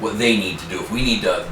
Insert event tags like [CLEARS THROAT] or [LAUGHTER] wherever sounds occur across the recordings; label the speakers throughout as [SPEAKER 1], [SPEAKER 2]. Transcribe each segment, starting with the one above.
[SPEAKER 1] what they need to do. If we need to,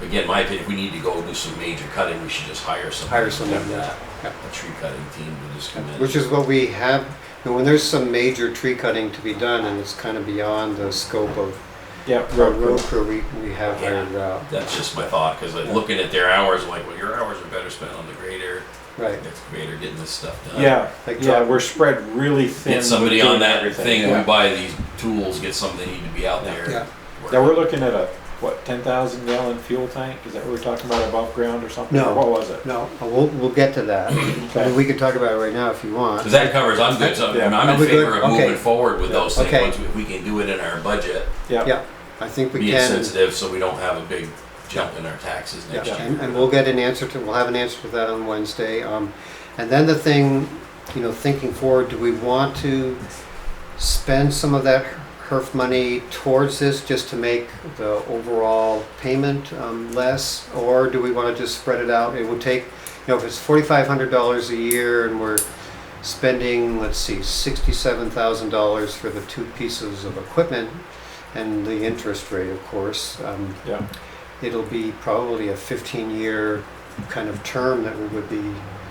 [SPEAKER 1] again, my opinion, if we need to go do some major cutting, we should just hire some.
[SPEAKER 2] Hire someone, yeah.
[SPEAKER 1] A tree cutting team to just come in.
[SPEAKER 2] Which is what we have, and when there's some major tree cutting to be done and it's kind of beyond the scope of
[SPEAKER 3] Yeah,
[SPEAKER 2] road road crew, we, we have hired uh, out.
[SPEAKER 1] That's just my thought, because like, looking at their hours, I'm like, well, your hours are better spent on the grader,
[SPEAKER 2] Right,
[SPEAKER 1] excavator, getting this stuff done.
[SPEAKER 3] Yeah,
[SPEAKER 2] Uh, Like
[SPEAKER 3] yeah,
[SPEAKER 2] drop-
[SPEAKER 3] we're spread really thin.
[SPEAKER 1] Get somebody
[SPEAKER 3] with
[SPEAKER 1] on
[SPEAKER 3] doing
[SPEAKER 1] that
[SPEAKER 3] everything.
[SPEAKER 1] thing, we
[SPEAKER 3] Yeah.
[SPEAKER 1] buy these tools, get some that need to be out there.
[SPEAKER 2] yeah.
[SPEAKER 1] working.
[SPEAKER 3] Now, we're looking at a, what, ten thousand gallon fuel tank? Is that what we're talking about above ground or something?
[SPEAKER 2] No.
[SPEAKER 3] Or What was it?
[SPEAKER 2] No, we'll, we'll get to that. I mean, we can talk about it right now if you want.
[SPEAKER 1] Because that covers, I'm good, so
[SPEAKER 3] Yeah.
[SPEAKER 1] I'm- I'm
[SPEAKER 2] Are
[SPEAKER 1] in
[SPEAKER 2] we good?
[SPEAKER 1] favor of
[SPEAKER 2] Okay.
[SPEAKER 1] moving forward with those things,
[SPEAKER 2] Okay.
[SPEAKER 1] once we- if we can do it in our budget,
[SPEAKER 3] Yeah,
[SPEAKER 2] Yeah, I think we
[SPEAKER 1] being
[SPEAKER 2] can.
[SPEAKER 1] sensitive, so we don't have a big jump in our taxes
[SPEAKER 2] Yeah,
[SPEAKER 1] next year.
[SPEAKER 2] and, and we'll get an answer to, we'll have an answer to that on Wednesday. Um, and then the thing, you know, thinking forward, do we want to spend some of that HERF money towards this just to make the overall payment, um, less? Or do we wanna just spread it out? It would take, you know, if it's forty-five hundred dollars a year and we're spending, let's see, sixty-seven thousand dollars for the two pieces of equipment and the interest rate, of course, um,
[SPEAKER 3] yeah,
[SPEAKER 2] it'll be probably a 15-year kind of term that we would be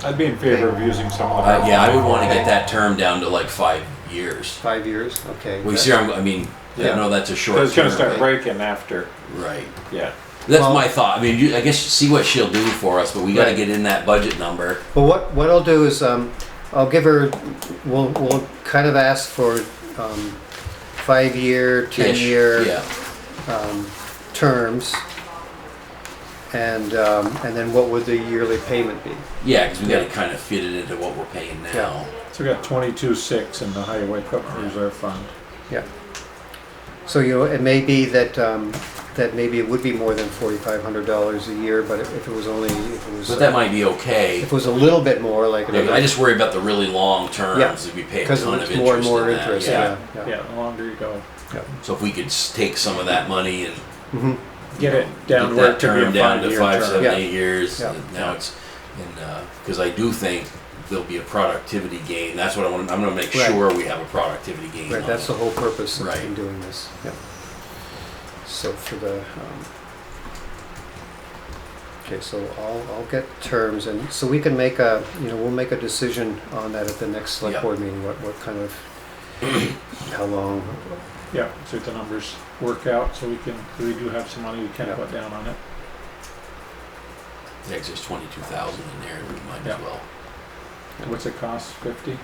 [SPEAKER 3] I'd be in favor of using some of the.
[SPEAKER 1] Uh, yeah, I would want to get that term down to like five years.
[SPEAKER 2] five years. Okay.
[SPEAKER 1] We see, I'm, I mean, I
[SPEAKER 3] Yeah.
[SPEAKER 1] know that's a short.
[SPEAKER 3] Cause it's gonna
[SPEAKER 1] term,
[SPEAKER 3] start
[SPEAKER 1] but-
[SPEAKER 3] breaking after,
[SPEAKER 1] Right.
[SPEAKER 3] yeah.
[SPEAKER 1] That's
[SPEAKER 2] Well-
[SPEAKER 1] my thought. I mean, you, I guess see what she'll do for us, but we got to
[SPEAKER 2] Right.
[SPEAKER 1] get in that budget number.
[SPEAKER 2] Well, what what I'll do is um, I'll give her. We'll we'll kind of ask for um, five-year,
[SPEAKER 1] Ish.
[SPEAKER 2] ten-year
[SPEAKER 1] Yeah.
[SPEAKER 2] um, terms, and um, and then what would the yearly payment be?
[SPEAKER 1] Yeah, because we got to kind of fit it into what we're paying now.
[SPEAKER 3] So we got twenty-two six in the highway equipment reserve fund.
[SPEAKER 2] Yeah. So, you know, it may be that, um, that maybe it would be more than forty-five hundred dollars a year, but if if it was only, if it was.
[SPEAKER 1] But that
[SPEAKER 2] uh,
[SPEAKER 1] might be okay.
[SPEAKER 2] If it was a little bit more, like.
[SPEAKER 1] Yeah, I just worry about the really long terms.
[SPEAKER 2] Yeah.
[SPEAKER 1] If we pay a
[SPEAKER 2] Because
[SPEAKER 1] ton
[SPEAKER 2] it's
[SPEAKER 1] of
[SPEAKER 2] more and
[SPEAKER 1] interest
[SPEAKER 2] more
[SPEAKER 1] in that,
[SPEAKER 2] interest,
[SPEAKER 1] yeah.
[SPEAKER 2] yeah.
[SPEAKER 3] Yeah, the longer you go,
[SPEAKER 1] So if we could s- take some of that money and
[SPEAKER 2] Mhm.
[SPEAKER 3] get it down
[SPEAKER 1] get
[SPEAKER 3] where it
[SPEAKER 1] that
[SPEAKER 3] could be a
[SPEAKER 1] term down to
[SPEAKER 3] five-year
[SPEAKER 1] five,
[SPEAKER 3] term.
[SPEAKER 1] seven,
[SPEAKER 2] Yeah.
[SPEAKER 1] eight years,
[SPEAKER 2] Yeah.
[SPEAKER 1] and now it's and because I do think there'll be a productivity gain. That's what I want. I'm going to make
[SPEAKER 2] Right.
[SPEAKER 1] sure we have a productivity gain.
[SPEAKER 2] Right,
[SPEAKER 1] on
[SPEAKER 2] that's
[SPEAKER 1] it.
[SPEAKER 2] the whole purpose of
[SPEAKER 1] Right.
[SPEAKER 2] in doing this, yeah. So for the, um, okay, so I'll, I'll get terms and, so we can make a, you know, we'll make a decision on that at the next select
[SPEAKER 1] Yeah.
[SPEAKER 2] board meeting, what, what kind of, how long,
[SPEAKER 3] Yeah, see if the numbers work out, so we can, we do have some money we can
[SPEAKER 2] Yeah.
[SPEAKER 3] put down on it.
[SPEAKER 1] Yeah, 'cause there's twenty-two thousand in there, and we might
[SPEAKER 3] Yeah.
[SPEAKER 1] as well.
[SPEAKER 3] What's it cost, fifty,
[SPEAKER 1] Yeah,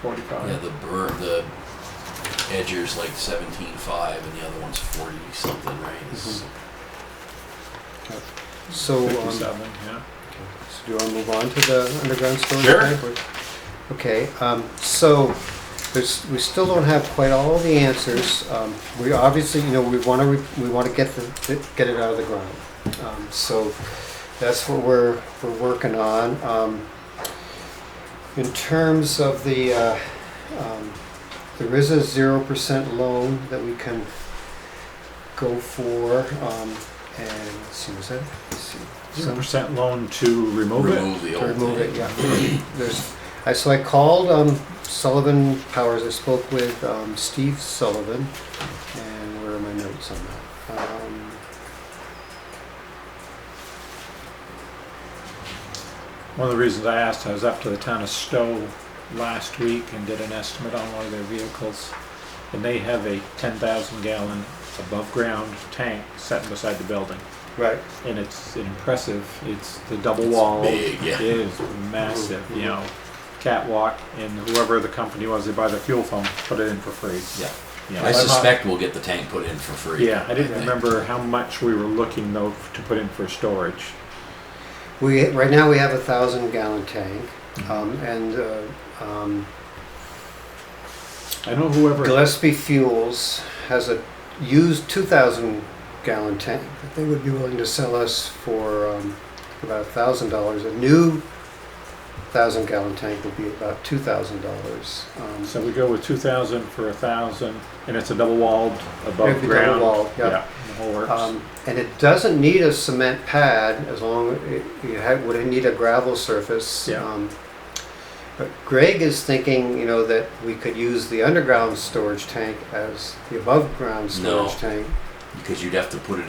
[SPEAKER 3] forty-five?
[SPEAKER 1] the bur the edger's like seventeen-five, and the other one's forty-something, right? It's-
[SPEAKER 2] so. um,
[SPEAKER 3] Fifty-seven, yeah.
[SPEAKER 2] So do you want to move on to the underground storage?
[SPEAKER 1] Sure.
[SPEAKER 2] tank, or- Okay, um, so there's, we still don't have quite all the answers. Um, we obviously, you know, we want to, we want to get the, get it out of the ground. Um, so that's what we're, we're working on. Um, in terms of the, uh, um, there is a zero percent loan that we can go for, um, and let's see, was that? let's see,
[SPEAKER 3] Zero
[SPEAKER 2] some-
[SPEAKER 3] percent loan to remove Mm-hmm. it?
[SPEAKER 1] Remove the
[SPEAKER 2] to
[SPEAKER 1] old
[SPEAKER 2] remove it,
[SPEAKER 1] thing.
[SPEAKER 2] yeah. [CLEARS THROAT] There's, I, so I called um, Sullivan Powers, I spoke with um, Steve Sullivan, and where are my notes on that? Um,
[SPEAKER 3] One of the reasons I asked, I was up to the town of Stowe last week and did an estimate on one of their vehicles. And they have a ten thousand gallon above ground tank set beside the building.
[SPEAKER 2] Right,
[SPEAKER 3] And it's impressive, it's the double
[SPEAKER 1] It's
[SPEAKER 3] wall.
[SPEAKER 1] big, yeah.
[SPEAKER 3] It is massive, you know, catwalk and whoever the company was, they buy the fuel from, put it in for free.
[SPEAKER 1] Yeah,
[SPEAKER 3] You know,
[SPEAKER 1] I
[SPEAKER 3] I'm not-
[SPEAKER 1] suspect we'll get the tank put in for free.
[SPEAKER 3] Yeah, I didn't
[SPEAKER 1] think.
[SPEAKER 3] remember how much we were looking though to put in for storage.
[SPEAKER 2] we, right now we have a thousand gallon tank,
[SPEAKER 1] Mm-hmm.
[SPEAKER 2] um, and uh, um,
[SPEAKER 3] I know whoever,
[SPEAKER 2] Gillespie Fuels has a used two thousand gallon tank that they would be willing to sell us for um, about a thousand dollars. A new thousand gallon tank would be about two thousand dollars. um,
[SPEAKER 3] so we go with two thousand for a thousand and it's a double walled above
[SPEAKER 2] It'd be double
[SPEAKER 3] ground.
[SPEAKER 2] walled, yeah.
[SPEAKER 3] The whole works.
[SPEAKER 2] Um, and it doesn't need a cement pad as long, it, you ha would need a gravel surface.
[SPEAKER 3] Yeah.
[SPEAKER 2] Um, But Greg is thinking, you know, that we could use the underground storage tank as the above-ground
[SPEAKER 1] No.
[SPEAKER 2] storage tank.
[SPEAKER 1] because you'd have to put it